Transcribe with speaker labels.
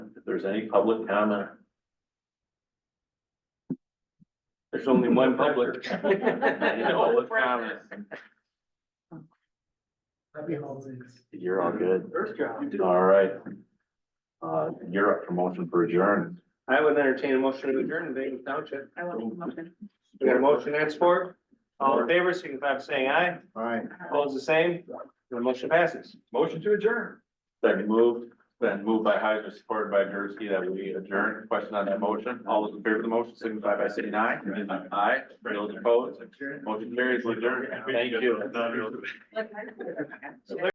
Speaker 1: there's any public comment.
Speaker 2: There's only one public.
Speaker 1: Public comment. You're all good.
Speaker 2: First job.
Speaker 1: All right. Uh, you're up for motion for adjourn.
Speaker 2: I would entertain a motion to adjourn the Dayton Township.
Speaker 3: I will make a motion.
Speaker 2: We got a motion and support. All in favor, signify by saying aye.
Speaker 1: All right.
Speaker 2: Opposed, the same. The motion passes.
Speaker 1: Motion to adjourn. Second moved, then moved by Heiser, supported by Jersey, that we adjourn. Question on that motion. All those in favor of the motion signify by saying aye. Aye. Those opposed, motion carries adjourned. Thank you.
Speaker 3: Look, I-